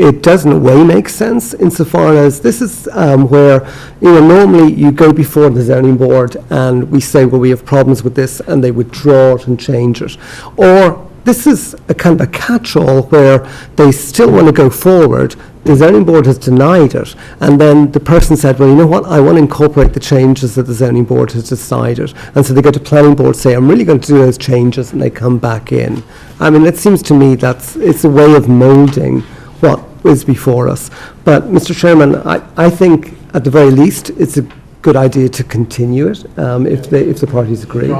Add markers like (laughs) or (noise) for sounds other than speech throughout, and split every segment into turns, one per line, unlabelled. it does in a way make sense insofar as this is um, where, you know, normally you go before the zoning board and we say, well, we have problems with this, and they withdraw it and change it. Or this is a kind of a catch-all where they still want to go forward, the zoning board has denied it, and then the person said, well, you know what, I want to incorporate the changes that the zoning board has decided. And so they go to planning board, say, I'm really going to do those changes, and they come back in. I mean, it seems to me that's, it's a way of moulding what is before us. But, Mr Chairman, I, I think at the very least, it's a good idea to continue it, um, if the, if the parties agree.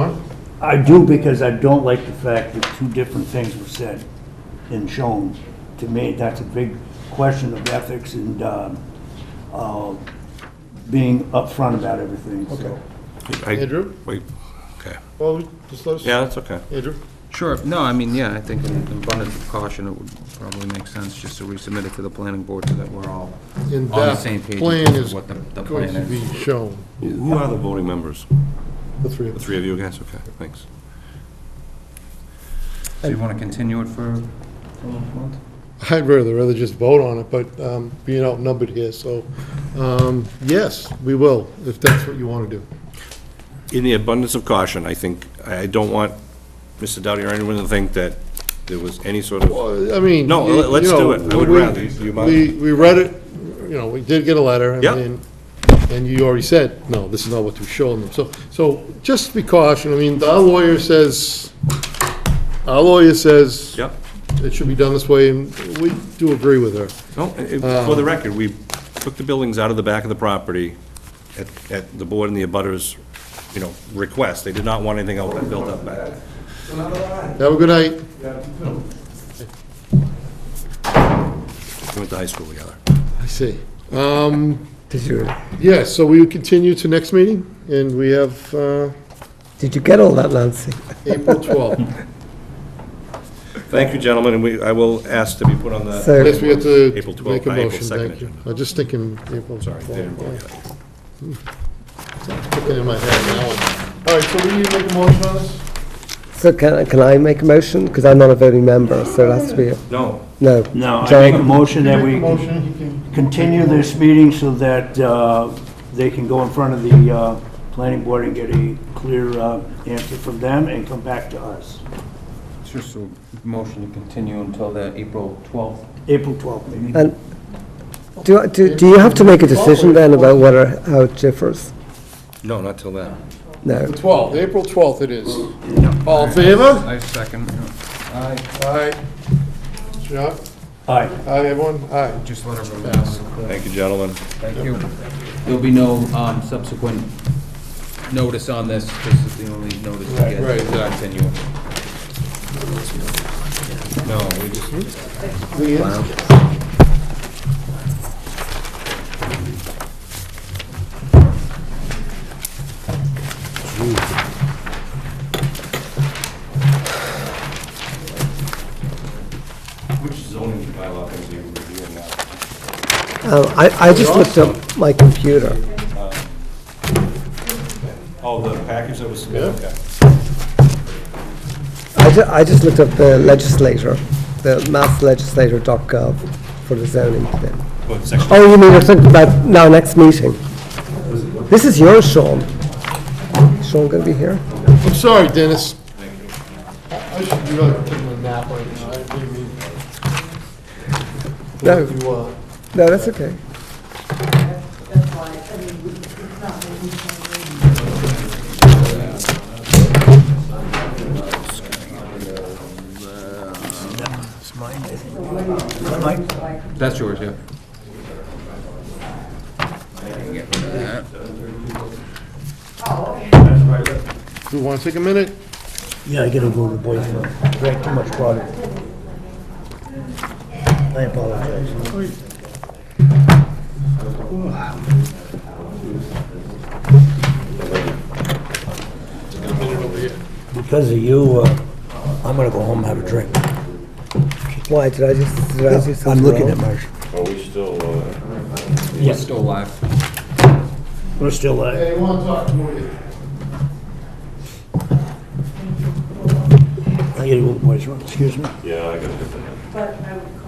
I do because I don't like the fact that two different things were said and shown. To me, that's a big question of ethics and um, uh, being upfront about everything, so.
I-
Andrew?
Wait, okay.
Well, just let us.
Yeah, that's okay.
Andrew?
Sure, no, I mean, yeah, I think in in abundance of caution, it would probably make sense just to resubmit it to the planning board so that we're all on
And
the
that
same page
plan
as
is
to what the, the
Going
plan
to be
is.
shown,
Who are the voting members?
the three of
The
us.
three of you guys? Okay, thanks.
So you want to continue it for for a month?
I'd rather, rather just vote on it, but um, being outnumbered here, so, um, yes, we will, if that's what you want to do.
In the abundance of caution, I think, I don't want Mr. Doughty or anyone to think that there was any sort of,
Well, I mean.
No,
you-
let's
you know,
do it. I would
we-
rather. Do you mind?
We, we read it, you know, we did get a letter. and
Yeah.
then- And you already said, no, this is not what we're showing them. So, so just be cautious. I mean, our lawyer says, our lawyer says.
Yep.
It should be done this way, and we do agree with her.
no, it- it- for the record, we took the buildings out of the back of the property at, at the board and the abutters, you know, request. They did not want anything else built up back.
Have a good night.
We went to high school together.
I see. Um,
Did you,
yeah, so we continue to next meeting, and we have, uh,
did you get all that, Nancy?
April
(laughs)
twelfth.
Thank you, gentlemen, and we, I will ask to be put on the,
So-
Yes, we have to
April 12th,
make a
not April
motion,
2nd
thank you.
agenda.
I'm just thinking April.
sorry, they didn't vote yet.
Put that in my head now. All right, so we need to make a motion on this?
So can, I- can I make a motion? Because I'm not a voting member, so it has to be, a-
No,
no.
No, I
John?
make a motion that
Make
we
a motion, you can-
continue this meeting so that uh, they can go in front of the uh, planning board and get a clear uh, answer from them and come back to us.
It's just a motion to continue until the April 12th.
April 12th, maybe.
And do, I- do, do you have to make a decision then about whether, how it differs?
no, not till then.
No.
The twelfth, April twelfth it is. All in favor?
I second. Aye.
Aye. Yeah,
All right.
aye, everyone, aye.
Just let everyone know.
Thank you, gentlemen.
Thank you. There'll be no um, subsequent notice on this. This is the only notice we get.
Right, right.
Continue.
No, we just,
We in?
Which zoning bylaw things are you reviewing now?
Um, I, I just looked up my computer.
Oh, the package that was submitted, okay.
I ju- I just looked up the legislator, the masslegislator.gov for the zoning thing.
What section?
Oh, you mean you're thinking about now next meeting? This is yours, Sean. Sean gonna be here?
I'm sorry, Dennis. I should be really taking a nap right now, I didn't mean.
No.
If you, uh,
No, that's okay.
That's yours, yeah.
Do you want to take a minute?
Yeah, I gotta go to the boyfriend. Drank too much water. I apologize. Because of you, uh, I'm gonna go home and have a drink.
Why, did I just, did I do something
I'm looking at
wrong?
my,
Yes. Still alive.
we're still, uh,
Hey, I want to talk to you.
I gotta go to the boyfriend, excuse me.
But I would